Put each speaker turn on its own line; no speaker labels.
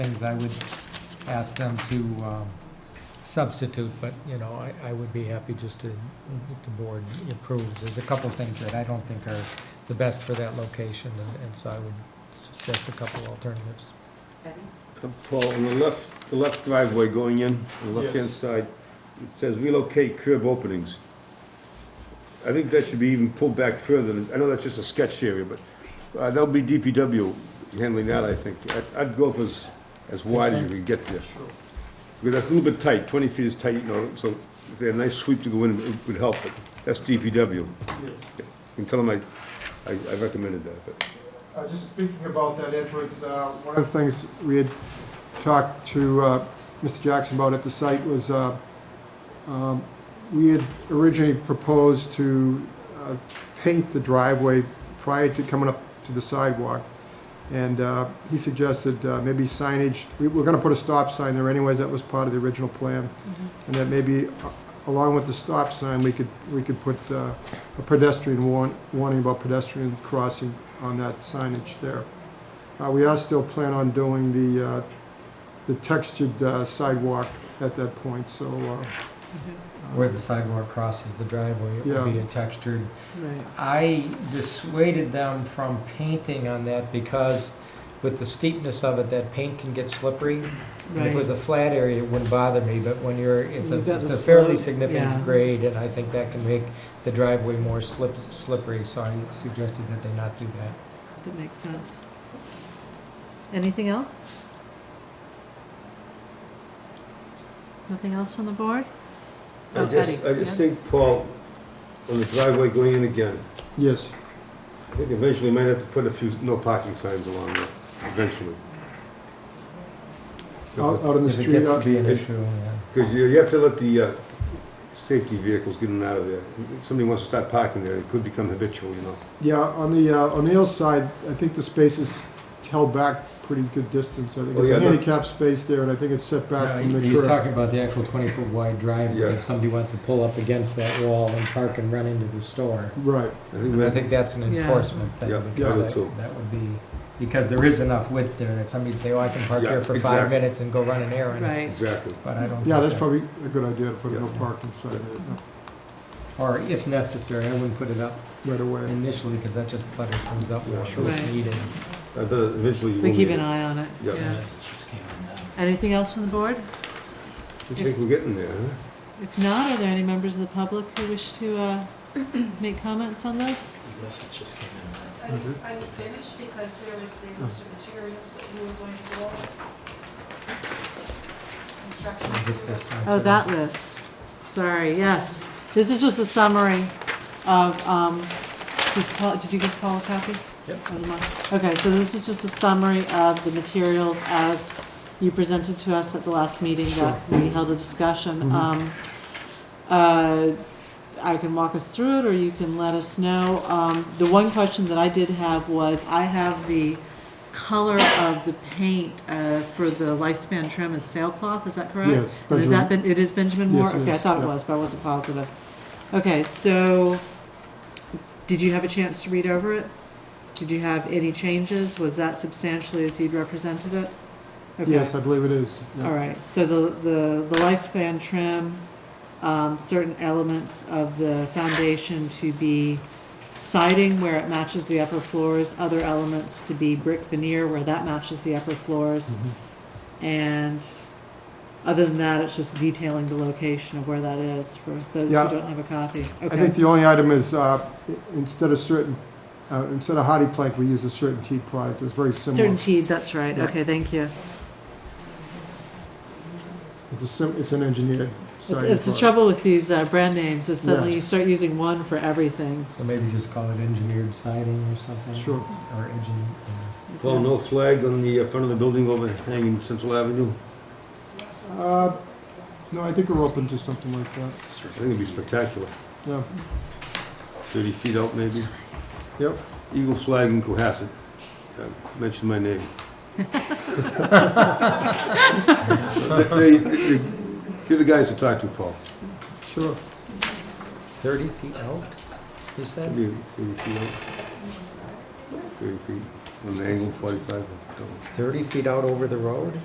things I would ask them to um, substitute, but, you know, I, I would be happy just to, if the board approves. There's a couple things that I don't think are the best for that location, and, and so I would suggest a couple alternatives.
Betty?
Uh, Paul, on the left, the left driveway going in, the left-hand side, it says relocate curb openings. I think that should be even pulled back further, I know that's just a sketch area, but uh, that'll be DPW handling that, I think. I'd- I'd go for as, as wide as you can get there. Because that's a little bit tight, twenty feet is tight, you know, so if they had a nice sweep to go in, it would help, but that's DPW. You can tell them I, I I recommended that, but.
Uh, Just speaking about that entrance, uh, one of the things we had talked to uh, Mr. Jackson about at the site was, uh, um, we had originally proposed to uh, paint the driveway prior to coming up to the sidewalk. And uh, he suggested uh, maybe signage, we were going to put a stop sign there anyways, that was part of the original plan. And that maybe uh, along with the stop sign, we could, we could put uh, a pedestrian warn- warning about pedestrian crossing on that signage there. Uh, We are still planning on doing the, uh, the textured uh, sidewalk at that point, so, uh,
Where the sidewalk crosses the driveway, it would be a textured
Right.
I dissuaded them from painting on that because with the steepness of it, that paint can get slippery. If it was a flat area, it wouldn't bother me, but when you're, it's a
You've got
it's
the
a fairly
slope, yeah.
significant grade, and I think that can make the driveway more slip slippery, so I suggested that they not do that.
That makes sense. Anything else? Nothing else from the board?
I
Oh,
just, I
Eddie,
just
yeah.
think, Paul, on the driveway going in again,
yes.
I think eventually you might have to put a few no parking signs along there, eventually.
Out out on the
If it
street, uh,
gets to
out-
be an
it-
issue, yeah.
Because you you have to let the uh, safety vehicles get in and out of there. If somebody wants to start parking there, it could become habitual, you know.
yeah, on the uh, O'Neill side, I think the space is held back pretty good distance. I think
Oh,
it's
yeah,
a
the-
handicap space there, and I think it's set
No,
back from
he-
the
He's
curb.
talking about the actual twenty-foot wide driveway,
Yeah.
if somebody wants to pull up against that wall and park and run into the store.
Right,
I think
I
that-
think that's an
Yeah.
enforcement thing,
Yeah,
because
yeah.
that, that would be, because there is enough width there that somebody'd say, oh, I can park
Yeah,
there for five
exactly.
minutes and go run an errand,
Right,
Exactly.
but I don't.
yeah,
think
that's
that-
probably a good idea to put a no
Yeah.
parking sign there
Or if necessary, I wouldn't put it up
right away.
initially, because that just clutters things up,
Yeah.
I'm sure it's
Right.
needed.
I bet eventually you will.
we keep
need
an
it.
eye on it,
Yeah.
yeah. Anything else from the board?
I think we're getting there, huh?
If not, are there any members of the public who wish to uh, make comments on this?
The message just came in.
Are you, are you finished? Because there was the list of materials that you were going to go over. Construction.
Just this time
Oh,
too.
that list. Sorry, yes. This is just a summary of, um, does Paul, did you give Paul a copy?
Yep.
Of the mo- Okay, so this is just a summary of the materials as you presented to us at the last meeting that we held a discussion.
Mhm.
Um, uh, I can walk us through it, or you can let us know. Um, The one question that I did have was, I have the color of the paint uh, for the lifespan trim is sailcloth, is that correct?
Yes,
And Has that been, it is Benjamin Moore?
Yes, it
Okay, I
is,
thought it
yeah.
was, but I wasn't positive. Okay, so, did you have a chance to read over it? Did you have any changes? Was that substantially as you'd represented it? Okay.
Yes, I believe it is. yeah.
All right, so the, the the lifespan trim, um, certain elements of the foundation to be siding where it matches the upper floors, other elements to be brick veneer where that matches the upper floors.
Mhm.
And other than that, it's just detailing the location of where that is for those who
Yeah.
don't have a copy.
I think
Okay,
the only item is, uh, i- instead of certain, uh, instead of hardy plank, we use a certain teak product, it's very similar.
certainty, that's right,
Yeah.
okay, thank you.
It's a sim, it's an engineered siding
It's the
product.
trouble with these uh, brand names, is suddenly
Yeah.
you start using one for everything.
So maybe just call it engineered siding or something?
Sure.
Or engine, uh,
Paul, no flag on the uh, front of the building overhanging Central Avenue?
Uh, No, I think we're open to something like that,
I think it'd be spectacular.
yeah,
Thirty feet out, maybe.
yep.
Eagle flag in Cohasset. Uh, Mention my name. They- they- they- You're the guys to talk to, Paul.
Sure.
thirty feet out, you said?
Maybe Thirty feet out. Thirty feet, on the angle, forty-five.
Thirty feet out over the road?